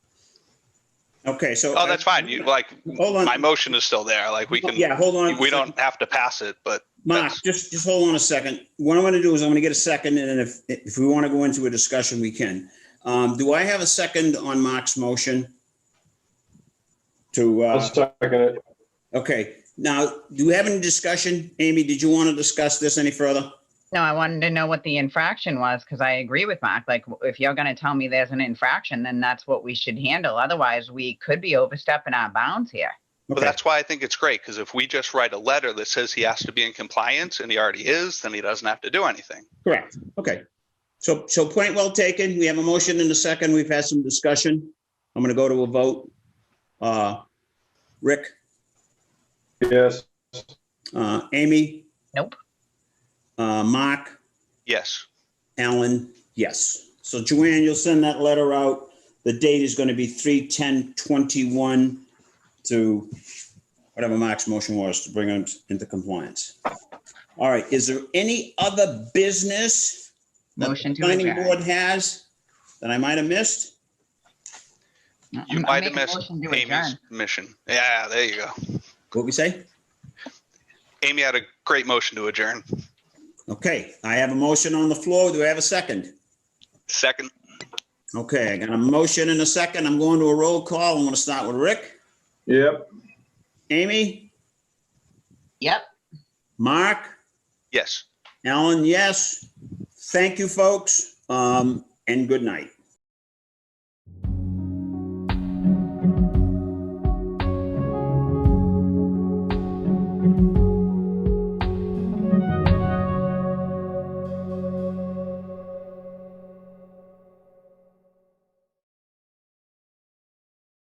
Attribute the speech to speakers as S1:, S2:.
S1: Okay, so.
S2: Oh, that's fine. You, like,
S1: Hold on.
S2: my motion is still there. Like, we can,
S1: Yeah, hold on. a
S2: we
S1: second.
S2: don't have to pass it, but
S1: Mark,
S2: that's-
S1: just, just hold on a second. What I'm going to do is I'm going to get a second and then if, if we want to go into a discussion, we can. Um, do I have a second on Mark's motion? To,
S3: I'll
S1: uh,
S3: second it.
S1: okay, now, do we have any discussion? Amy, did you want to discuss this any further?
S4: No, I wanted to know what the infraction was because I agree with Mark. Like, w- if you're going to tell me there's an infraction, then that's what we should handle. Otherwise, we could be overstepping our bounds here.
S2: But
S1: Okay.
S2: that's why I think it's great, because if we just write a letter that says he has to be in compliance and he already is, then he doesn't have to do anything.
S1: Correct, okay. So, so point well taken. We have a motion and a second. We've had some discussion. I'm gonna go to a vote. Uh, Rick,
S3: Yes,
S1: uh, Amy?
S4: Nope.
S1: Uh, Mark,
S2: Yes.
S1: Alan, yes. So Joanne, you'll send that letter out. The date is gonna be three ten twenty-one to whatever Mark's motion was to bring them into compliance. All right, is there any other business? that the
S4: Motion to
S1: Planning
S4: adjourn.
S1: board has that I might have missed?
S2: You
S4: Uh-uh, I'm- I
S2: might
S4: make
S2: have
S4: a
S2: missed
S4: motion to
S2: Amy's
S4: adjourn.
S2: mission. Yeah, there you go.
S1: What we say?
S2: Amy had a great motion to adjourn.
S1: Okay, I have a motion on the floor. Do I have a second?
S2: Second,
S1: Okay, I got a motion and a second. I'm going to a roll call. I'm gonna start with Rick,
S3: yep,
S1: Amy,
S4: Yep.
S1: Mark,
S2: yes.
S1: Alan, yes. Thank you, folks, um, and good night.